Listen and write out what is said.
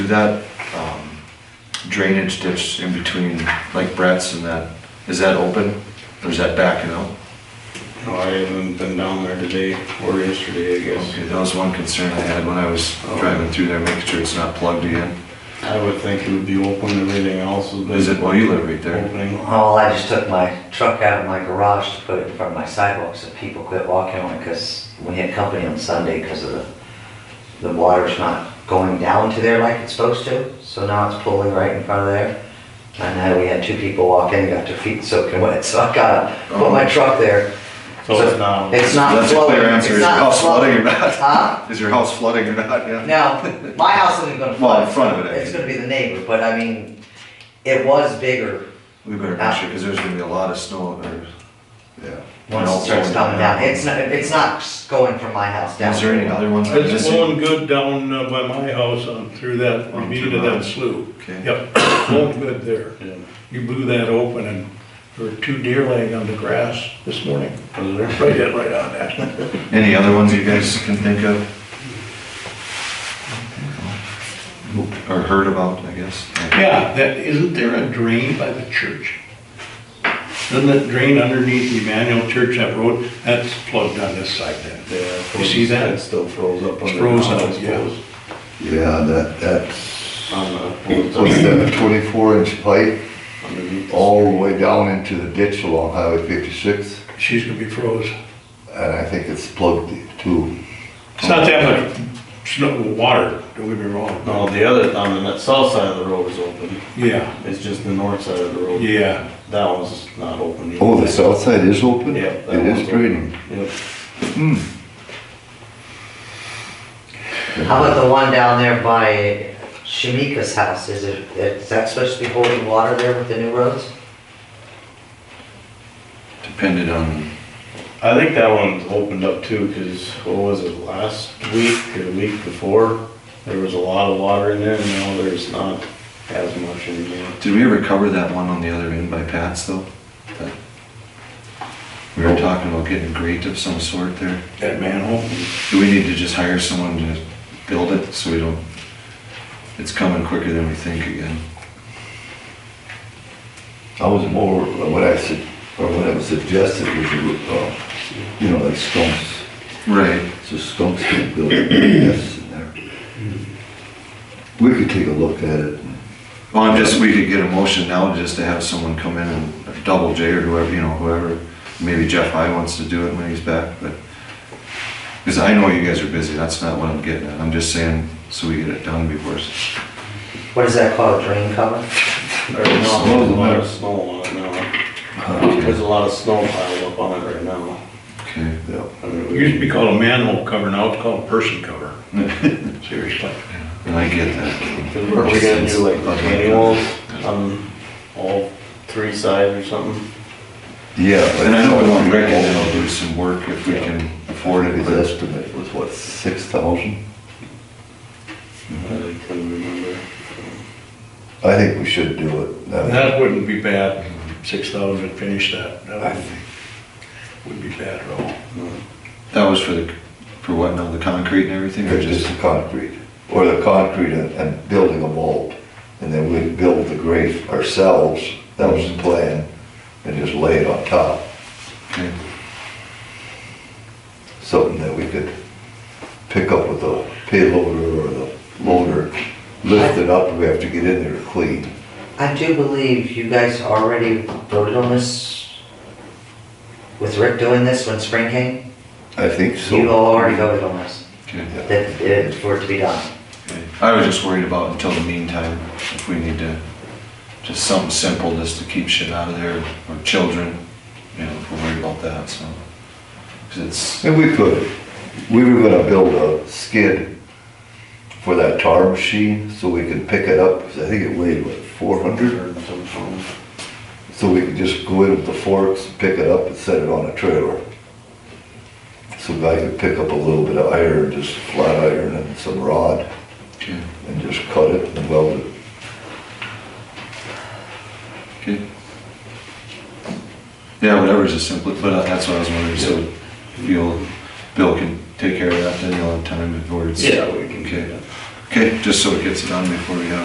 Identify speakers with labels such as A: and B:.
A: that um, drainage ditch in between, like Brett's and that, is that open? Or is that backing out?
B: No, I haven't been down there today or yesterday, I guess.
A: Okay, that was one concern I had when I was
C: Oh.
A: driving through there, making sure it's not plugged in.
B: I would think it would be open, everything else has been.
A: Is it, well, you live right there.
B: Opening.
C: Well, Oh, I just took my truck out of my garage to put it in front of my sidewalk so people quit walking on it because we had company on Sunday because of the, the water's not going down to there like it's supposed to. So now it's pulling right in front of there. And now we had two people walk in, got their feet soaking wet, so I gotta put my truck there.
B: So it's not-
C: It's not
A: That's a
C: flooding.
A: clear answer,
C: It's
A: is your
C: not
A: house flooding or not?
C: Huh?
A: Is your house flooding or not, yeah?
C: No, my house isn't gonna flood.
A: Well, in front of it, I
C: It's
A: mean.
C: gonna be the neighbor, but I mean, it was bigger
A: We better make sure, because there's gonna be a lot of snow or. Yeah.
C: Once it starts coming down, it's not, it's not going from my house down.
A: Is there any other ones? that are
D: It's
A: missing?
D: blowing good down uh, by my house on through that ravine of that slough.
A: Okay.
D: Yep, blowing good there. You blew that open and there were two deer laying on the grass this morning.
B: Was there?
D: Right in, right on that.
A: Any other ones you guys can think of? Or heard about, I guess?
D: Yeah, that, isn't there a drain by the church? Doesn't that drain underneath the Emmanuel Church, that road, that's plugged on this side then?
B: Yeah.
D: You see that?
B: It still froze up.
D: It's
B: under now,
D: frozen,
B: I
D: yeah.
B: suppose.
E: Yeah, that, that's,
B: On the-
E: what's that, a twenty-four inch pipe
B: underneath the
E: all the
B: street.
E: way down into the ditch along Highway fifty-six,
D: She's gonna be froze.
E: and I think it's plugged too.
D: It's not that much snow, water, don't get me wrong.
B: No, the other, on the south side of the road is open.
D: Yeah,
B: It's just the north side of the road.
D: yeah.
B: That one's not open.
E: Oh, the south side is open?
B: Yeah, that
E: It
B: one's
E: is
B: open.
E: draining.
B: Yep.
C: How about the one down there by Shamika's house, is it, is that supposed to be holding water there with the new roads?
A: Depended on,
B: I think that one's opened up too, because what was it, last week or the week before? There was a lot of water in there, and now there's not as much anymore.
A: did we ever cover that one on the other end by Pat's though? That- We were talking about getting a grate of some sort there.
D: That manhole,
A: Do we need to just hire someone to build it so we don't, it's coming quicker than we think again?
E: I was more, what I said, or what I suggested was, uh, you know, like stumps,
A: Right.
E: so stumps can build nests in there. We could take a look at it. and-
A: Well, I'm just, we could get a motion now just to have someone come in and double J or whoever, you know, whoever. Maybe Jeff High wants to do it when he's back, but. Cause I know you guys are busy, that's not what I'm getting at. I'm just saying, so we get it done before. s-
C: What is that called, a drain cover?
B: There's not a lot of snow on it now. There's a lot of snow piled up on it right now.
A: Okay.
E: Yeah.
B: I mean,
D: it
B: we-
D: used to be called a manhole cover, now it's called a person cover. Seriously.
A: And I get that.
B: Cause we're gonna do like manuals on all three sides or something.
E: Yeah. but-
A: And I know we want Greg to help do some work if we can afford it,
E: His
A: but
E: estimate was what, six thousand?
B: I couldn't remember.
E: I think we should do it. That-
D: That wouldn't be bad, six thousand to finish that, that wouldn't be- wouldn't be bad at all.
A: that was for the, for what now, the concrete and everything or
E: Or
A: just?
E: just the concrete, or the concrete and, and building a mold. And then we'd build the grave ourselves, that was the plan, and just lay it on top,
A: okay.
E: something that we could pick up with a payloader or the loader, lift it up, we have to get in there to clean.
C: I do believe you guys already voted on this, with Rick doing this when spring came?
E: I think
C: You
E: so.
C: all already voted on this,
A: Okay.
C: that, it- for it to be done.
A: Okay. I was just worried about until the meantime, if we need to, just something simple just to keep shit out of there, or children, you know, if we're worried about that, so. Cause it's,
E: And we could, we were gonna build a skid for that tar machine, so we could pick it up, because I think it weighed, what, four hundred?
B: Or something.
E: So we could just go in with the forks, pick it up and set it on a trailer. So I could pick up a little bit of iron, just flat iron and some rod,
A: okay,
E: and just cut it and weld it.
A: okay. Yeah, whatever's the simplest, but uh, that's what I was wondering, so you'll, Bill can take care of that, then you'll have time before it's.
B: Yeah, we can do
A: Okay.
B: that.
A: Okay, just so it gets it on before we have